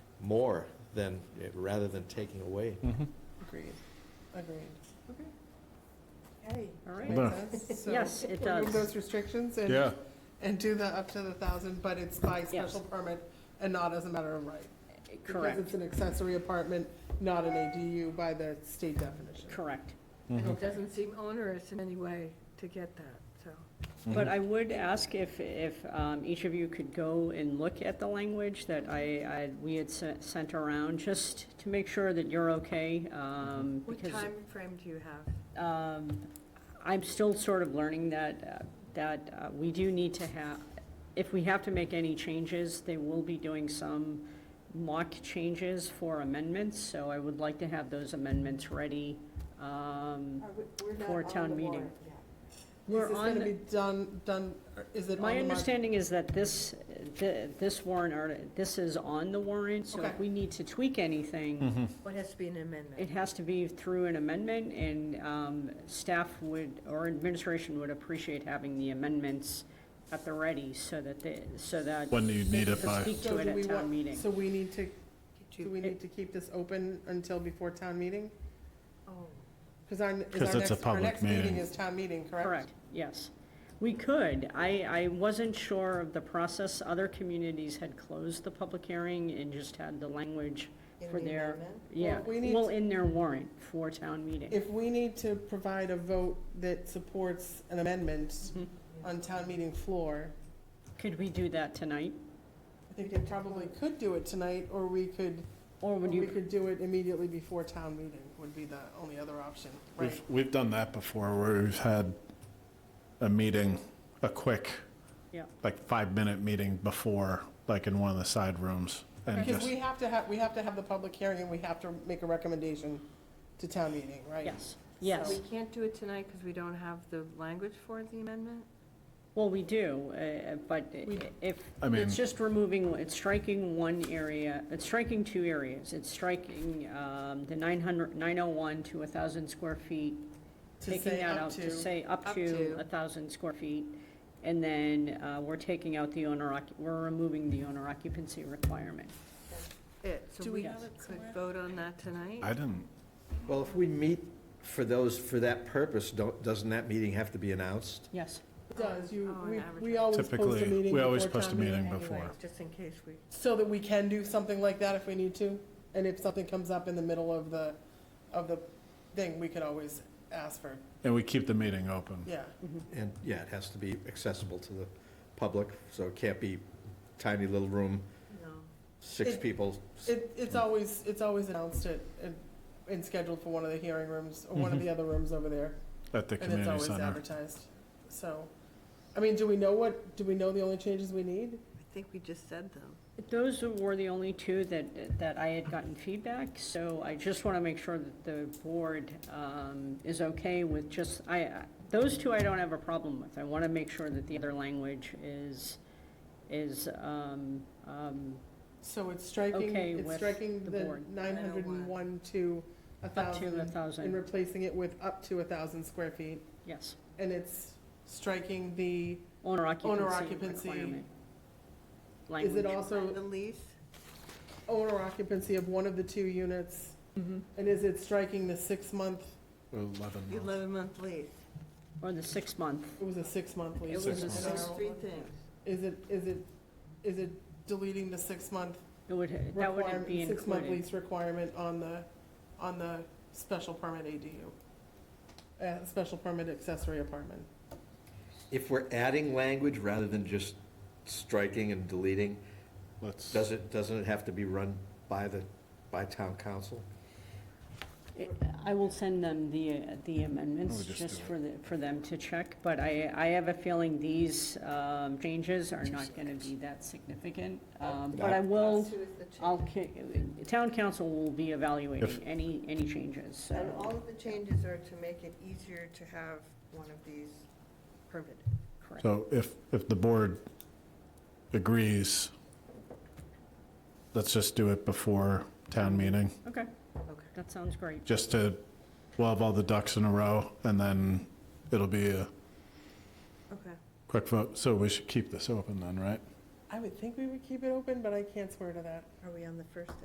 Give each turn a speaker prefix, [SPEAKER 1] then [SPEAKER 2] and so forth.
[SPEAKER 1] more than, rather than taking away.
[SPEAKER 2] Agreed, agreed. Okay,
[SPEAKER 3] Hey.
[SPEAKER 2] all right.
[SPEAKER 4] Well-
[SPEAKER 2] that's- so
[SPEAKER 3] Yes, it
[SPEAKER 2] remove
[SPEAKER 3] does.
[SPEAKER 2] Those restrictions and.
[SPEAKER 4] Yeah,
[SPEAKER 2] And do the up to the thousand, but it's by special permit and not as a matter of right. Because
[SPEAKER 3] Correct,
[SPEAKER 2] it's an accessory apartment, not an ADU by the state definition.
[SPEAKER 3] correct.
[SPEAKER 5] And it doesn't seem onerous in any way to get that, so.
[SPEAKER 3] But I would ask if, if um, each of you could go and look at the language that I, I, we had se- sent around, just to make sure that you're okay. um,
[SPEAKER 5] What
[SPEAKER 3] because,
[SPEAKER 5] time frame do you have?
[SPEAKER 3] um, I'm still sort of learning that, uh, that uh, we do need to have, if we have to make any changes, they will be doing some mock changes for amendments, so I would like to have those amendments ready.
[SPEAKER 5] Uh,
[SPEAKER 3] um, For town meeting.
[SPEAKER 2] Is
[SPEAKER 3] We're
[SPEAKER 2] this
[SPEAKER 3] on-
[SPEAKER 2] gonna be done, done, or is it on the
[SPEAKER 3] My
[SPEAKER 2] market?
[SPEAKER 3] understanding is that this, th- this warrant, arti- this is on the warrant, so
[SPEAKER 2] Okay.
[SPEAKER 3] if we need to tweak anything,
[SPEAKER 5] What has to be an
[SPEAKER 3] it
[SPEAKER 5] amendment?
[SPEAKER 3] has to be through an amendment, and um, staff would, or administration would appreciate having the amendments at the ready, so that they, so that
[SPEAKER 4] when do you need
[SPEAKER 3] they
[SPEAKER 4] it
[SPEAKER 3] can
[SPEAKER 4] by?
[SPEAKER 3] speak
[SPEAKER 2] So
[SPEAKER 3] to it
[SPEAKER 2] do we
[SPEAKER 3] at town
[SPEAKER 2] want-
[SPEAKER 3] meeting.
[SPEAKER 2] So we need to, do we need to keep this open until before town meeting?
[SPEAKER 5] Oh,
[SPEAKER 2] Because our, is
[SPEAKER 4] 'Cause
[SPEAKER 2] our
[SPEAKER 4] it's a
[SPEAKER 2] next, our
[SPEAKER 4] public
[SPEAKER 2] next meeting
[SPEAKER 4] meeting.
[SPEAKER 2] is town meeting, correct?
[SPEAKER 3] Correct, yes. We could. I, I wasn't sure of the process. Other communities had closed the public hearing and just had the language for their, yeah,
[SPEAKER 2] Well, we need
[SPEAKER 3] well,
[SPEAKER 2] to-
[SPEAKER 3] in their warrant for town meeting.
[SPEAKER 2] If we need to provide a vote that supports an amendment
[SPEAKER 3] Mhm.
[SPEAKER 5] Mm-hmm.
[SPEAKER 2] on town meeting floor,
[SPEAKER 3] Could we do that tonight?
[SPEAKER 2] I think they probably could do it tonight, or we could,
[SPEAKER 3] Or
[SPEAKER 2] or
[SPEAKER 3] would
[SPEAKER 2] we
[SPEAKER 3] you,
[SPEAKER 2] could do it immediately before town meeting, would be the only other option, right?
[SPEAKER 4] We've, we've done that before, where we've had a meeting, a quick,
[SPEAKER 3] Yeah.
[SPEAKER 4] like, five-minute meeting before, like, in one of the side rooms, and
[SPEAKER 2] Because
[SPEAKER 4] just,
[SPEAKER 2] we have to have, we have to have the public hearing, and we have to make a recommendation to town meeting, right?
[SPEAKER 3] yes,
[SPEAKER 5] so
[SPEAKER 3] yes.
[SPEAKER 5] we can't do it tonight because we don't have the language for the amendment?
[SPEAKER 3] Well, we do, uh, but
[SPEAKER 2] We-
[SPEAKER 3] if,
[SPEAKER 4] I mean-
[SPEAKER 3] it's just removing, it's striking one area, it's striking two areas. It's striking um, the 900, 901 to 1,000 square feet
[SPEAKER 2] To
[SPEAKER 3] taking
[SPEAKER 2] say
[SPEAKER 3] that
[SPEAKER 2] up
[SPEAKER 3] out to
[SPEAKER 2] to,
[SPEAKER 3] say up
[SPEAKER 5] up
[SPEAKER 3] to
[SPEAKER 5] to.
[SPEAKER 3] a thousand square feet. And then uh, we're taking out the owner, occu- we're removing the owner occupancy requirement.
[SPEAKER 5] It,
[SPEAKER 2] Do
[SPEAKER 5] so
[SPEAKER 2] we
[SPEAKER 5] we
[SPEAKER 3] Uh, have
[SPEAKER 2] it
[SPEAKER 5] could
[SPEAKER 2] somewhere?
[SPEAKER 5] vote on that tonight?
[SPEAKER 4] I didn't,
[SPEAKER 1] Well, if we meet for those, for that purpose, don't, doesn't that meeting have to be announced?
[SPEAKER 3] Yes.
[SPEAKER 2] It does, you,
[SPEAKER 5] Oh, an
[SPEAKER 2] we, we
[SPEAKER 5] advertisement.
[SPEAKER 2] always post a
[SPEAKER 4] typically,
[SPEAKER 2] meeting
[SPEAKER 4] we always
[SPEAKER 2] before
[SPEAKER 4] post a
[SPEAKER 2] town meeting
[SPEAKER 4] meeting
[SPEAKER 2] anyway.
[SPEAKER 4] before.
[SPEAKER 5] Just in case we,
[SPEAKER 2] So that we can do something like that if we need to, and if something comes up in the middle of the, of the thing, we could always ask for,
[SPEAKER 4] And we keep the meeting open.
[SPEAKER 2] yeah.
[SPEAKER 1] And, yeah, it has to be accessible to the public, so it can't be tiny little room,
[SPEAKER 5] no.
[SPEAKER 1] six
[SPEAKER 2] It-
[SPEAKER 1] people.
[SPEAKER 2] It, it's always, it's always announced it, and- and scheduled for one of the hearing rooms, or one of
[SPEAKER 4] Mhm.
[SPEAKER 2] the other rooms over there.
[SPEAKER 4] At the
[SPEAKER 2] And it's
[SPEAKER 4] community
[SPEAKER 2] always
[SPEAKER 4] center.
[SPEAKER 2] advertised, so, I mean, do we know what, do we know the only changes we need?
[SPEAKER 5] I think we just said them.
[SPEAKER 3] Those were the only two that, that I had gotten feedback, so I just want to make sure that the board um, is okay with just, I, I- those two I don't have a problem with. I want to make sure that the other language is, is, um, um,
[SPEAKER 2] So it's striking,
[SPEAKER 3] Okay
[SPEAKER 2] it's
[SPEAKER 3] with
[SPEAKER 2] striking
[SPEAKER 3] the
[SPEAKER 2] the
[SPEAKER 3] board.
[SPEAKER 2] nine hundred and one to a
[SPEAKER 3] up to a
[SPEAKER 2] thousand, and
[SPEAKER 3] thousand,
[SPEAKER 2] replacing it with up to a thousand square feet,
[SPEAKER 3] yes.
[SPEAKER 2] and it's striking the,
[SPEAKER 3] Owner occupancy
[SPEAKER 2] occupancy.
[SPEAKER 3] requirement.
[SPEAKER 2] is it
[SPEAKER 3] Language.
[SPEAKER 5] And the
[SPEAKER 2] also
[SPEAKER 5] lease,
[SPEAKER 2] owner occupancy of one of the two units? And is it striking the six-month,
[SPEAKER 4] Eleven
[SPEAKER 5] the
[SPEAKER 4] months.
[SPEAKER 5] eleven-month lease,
[SPEAKER 3] Or the six-month.
[SPEAKER 2] it was a six-month lease?
[SPEAKER 3] It was a
[SPEAKER 2] an
[SPEAKER 3] six-
[SPEAKER 5] those
[SPEAKER 2] arrow.
[SPEAKER 5] three things.
[SPEAKER 2] Is it, is it, is it deleting the six-month
[SPEAKER 3] It would, that wouldn't
[SPEAKER 2] requirement,
[SPEAKER 3] be
[SPEAKER 2] six-month
[SPEAKER 3] included.
[SPEAKER 2] lease requirement on the, on the special permit ADU? Uh, special permit accessory apartment.
[SPEAKER 1] If we're adding language rather than just striking and deleting,
[SPEAKER 4] Let's,
[SPEAKER 1] does it, doesn't it have to be run by the, by town council?
[SPEAKER 3] It- I will send them the, uh, the amendments,
[SPEAKER 4] We'll just
[SPEAKER 3] just
[SPEAKER 4] do it.
[SPEAKER 3] for the, for them to check, but I, I have a feeling these um, changes are
[SPEAKER 4] Two
[SPEAKER 3] not gonna be that significant. Um,
[SPEAKER 1] Yeah.
[SPEAKER 3] But I will,
[SPEAKER 5] Those two is the change.
[SPEAKER 3] I'll, ca- town council will be evaluating
[SPEAKER 4] If-
[SPEAKER 3] any, any changes,
[SPEAKER 5] And
[SPEAKER 3] so,
[SPEAKER 5] all of the changes are to make it easier to have one of these permitted.
[SPEAKER 3] correct.
[SPEAKER 4] so if, if the board agrees, let's just do it before town meeting,
[SPEAKER 3] Okay,
[SPEAKER 5] Okay.
[SPEAKER 3] that sounds great.
[SPEAKER 4] just to, we'll have all the ducks in a row, and then it'll be a
[SPEAKER 5] Okay.
[SPEAKER 4] quick vote. So we should keep this open then, right?
[SPEAKER 2] I would think we would keep it open, but I can't swear to that.
[SPEAKER 5] Are we on the first